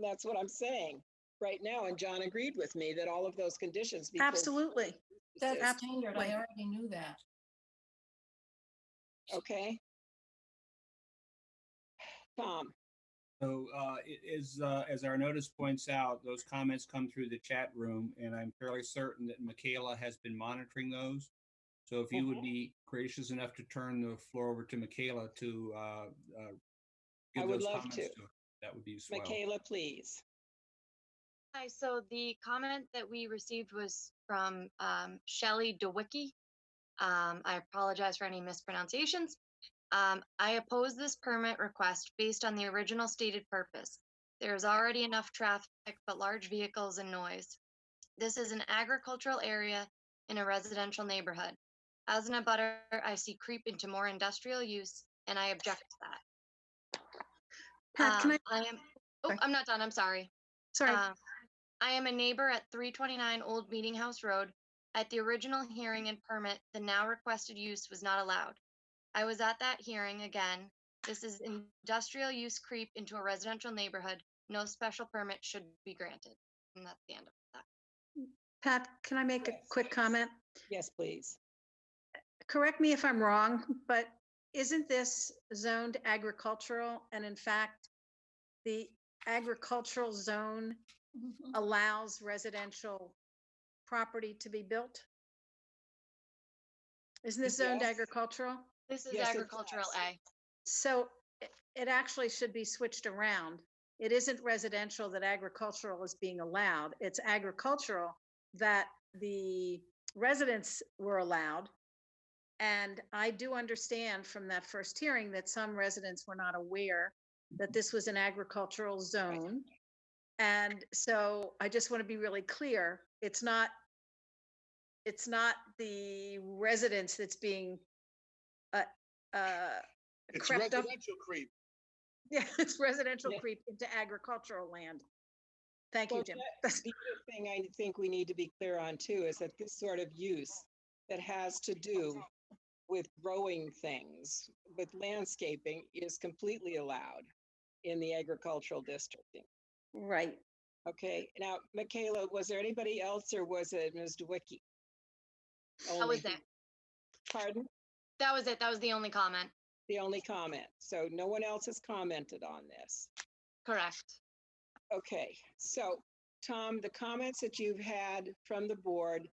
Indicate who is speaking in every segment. Speaker 1: that's what I'm saying right now. And John agreed with me that all of those conditions. because-
Speaker 2: Absolutely.
Speaker 3: That's
Speaker 2: Absolutely.
Speaker 3: standard. I already knew that.
Speaker 1: Okay. Tom,
Speaker 4: So, uh, it is, uh, as our notice points out, those comments come through the chat room, and I'm fairly certain that Michaela has been monitoring those. So if you would
Speaker 1: Mhm.
Speaker 4: be gracious enough to turn the floor over to Michaela to, uh, uh,
Speaker 1: I
Speaker 4: give
Speaker 1: would
Speaker 4: those
Speaker 1: love
Speaker 4: comments
Speaker 1: to.
Speaker 4: to, her, that would be swell.
Speaker 1: Michaela, please.
Speaker 5: Hi, so the comment that we received was from um, Shelley DeWicki. Um, I apologize for any mispronunciations. Um, I oppose this permit request based on the original stated purpose. There is already enough traffic, but large vehicles and noise. This is an agricultural area in a residential neighborhood. As an abutter, I see creep into more industrial use, and I object to that.
Speaker 2: Pat, can I,
Speaker 5: Um, I am, oh,
Speaker 2: sorry.
Speaker 5: I'm not done, I'm sorry.
Speaker 2: sorry,
Speaker 1: uh,
Speaker 5: Um, I am a neighbor at 329 Old Meeting House Road. At the original hearing and permit, the now requested use was not allowed. I was at that hearing again. This is industrial use creep into a residential neighborhood. No special permit should be granted. And that's the end of that.
Speaker 2: Pat, can I make a
Speaker 1: Yes.
Speaker 2: quick comment?
Speaker 1: Yes, please.
Speaker 2: Correct me if I'm wrong, but isn't this zoned agricultural? And in fact, the agricultural zone
Speaker 1: Mm-hmm.
Speaker 2: allows residential property to be built? Isn't this zoned
Speaker 1: Yes.
Speaker 2: agricultural?
Speaker 5: This is
Speaker 1: Yes, it
Speaker 5: agricultural
Speaker 1: does.
Speaker 5: A.
Speaker 2: So it- it actually should be switched around. It isn't residential that agricultural is being allowed. It's agricultural that the residents were allowed. And I do understand from that first hearing that some residents were not aware that this was an agricultural zone. And so I just want to be really clear, it's not, it's not the residents that's being, uh, uh,
Speaker 6: It's
Speaker 2: crept up-
Speaker 6: residential creep.
Speaker 2: yeah, it's residential
Speaker 1: Yeah.
Speaker 2: creep into agricultural land. Thank
Speaker 1: Well,
Speaker 2: you, Jim.
Speaker 1: The other thing I think we need to be clear on too is that this sort of use that has to do with growing things, with landscaping is completely allowed in the agricultural district.
Speaker 2: Right.
Speaker 1: Okay, now Michaela, was there anybody else or was it Ms. Dewicki?
Speaker 5: That
Speaker 1: Only.
Speaker 5: was it.
Speaker 1: Pardon?
Speaker 5: That was it. That was the only comment.
Speaker 1: The only comment. So no one else has commented on this.
Speaker 5: Correct.
Speaker 1: Okay, so Tom, the comments that you've had from the board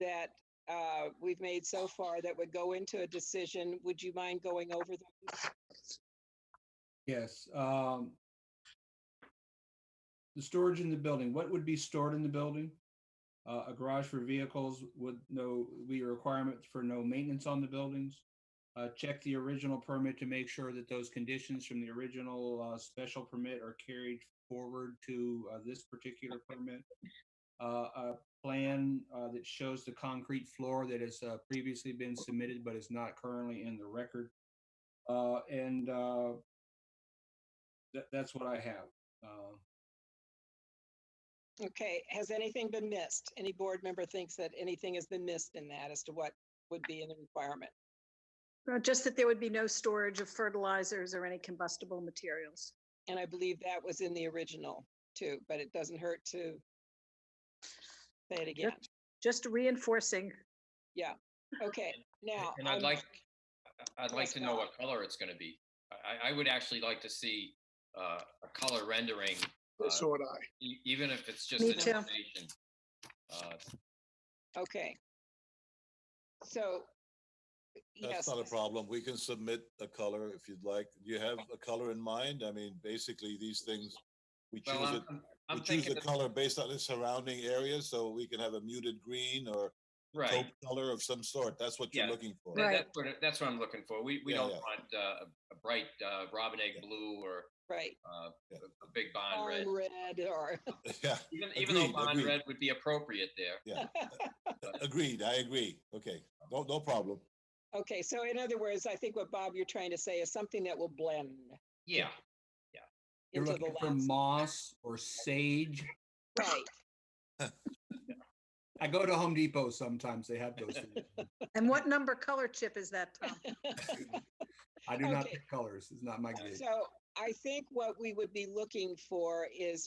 Speaker 1: that uh, we've made so far that would go into a decision, would you mind going over them?
Speaker 4: Yes, um, the storage in the building, what would be stored in the building? Uh, a garage for vehicles would no, be a requirement for no maintenance on the buildings. Uh, check the original permit to make sure that those conditions from the original, uh, special permit are carried forward to, uh, this particular permit. Uh, a plan, uh, that shows the concrete floor that has, uh, previously been submitted but is not currently in the record. Uh, and, uh, that, that's what I have. Uh,
Speaker 1: Okay, has anything been missed? Any board member thinks that anything has been missed in that as to what would be in the requirement?
Speaker 2: Uh, Just that there would be no storage of fertilizers or any combustible materials.
Speaker 1: And I believe that was in the original too, but it doesn't hurt to say it again.
Speaker 2: Just reinforcing.
Speaker 1: Okay, now.
Speaker 7: And I'd
Speaker 1: I'm-
Speaker 7: like, I- I'd like
Speaker 1: Yes,
Speaker 7: to know
Speaker 1: Bob.
Speaker 7: what color it's gonna be. I, I would actually like to see uh, a color rendering, Uh,
Speaker 6: So would I.
Speaker 7: e- even if it's just an
Speaker 2: Me too.
Speaker 7: information. Uh,
Speaker 1: Okay. So. yes,
Speaker 8: That's not a
Speaker 1: Ms.
Speaker 8: problem. We can submit a color if you'd like. Do you have a color in mind? I mean, basically, these things, we
Speaker 7: Well,
Speaker 8: choose
Speaker 7: I'm,
Speaker 8: it,
Speaker 7: I'm-
Speaker 8: we
Speaker 7: I'm
Speaker 8: choose
Speaker 7: thinking,
Speaker 8: the
Speaker 7: of-
Speaker 8: color based on the surrounding area, so we can have a muted green or
Speaker 7: right,
Speaker 8: taupe color of some sort. That's what
Speaker 7: Yeah.
Speaker 8: you're looking for.
Speaker 7: That-
Speaker 2: Right.
Speaker 7: that's what, that's what I'm looking for. We, we
Speaker 8: Yeah,
Speaker 7: don't
Speaker 8: yeah.
Speaker 7: want uh, a- a bright uh, robin egg blue or
Speaker 1: Right,
Speaker 7: uh,
Speaker 8: Yeah.
Speaker 7: a a big bond red.
Speaker 1: on red or,
Speaker 8: Yeah,
Speaker 7: Even, even though
Speaker 8: Agreed,
Speaker 7: bond
Speaker 8: agreed.
Speaker 7: red would be appropriate there.
Speaker 8: agreed. I agree. Okay, no, no problem.
Speaker 1: okay, so in other words, I think what Bob, you're trying to say is something that will blend
Speaker 7: Yeah,
Speaker 4: You're
Speaker 1: into the
Speaker 4: looking for
Speaker 1: landscape.
Speaker 4: moss or sage.
Speaker 1: Right,
Speaker 4: I go to Home Depot sometimes. They have those. things.
Speaker 2: And what number color chip is that, Tom?
Speaker 4: I do not
Speaker 1: Okay.
Speaker 4: pick colors. It's not my gig.
Speaker 1: so I think what we would be looking for is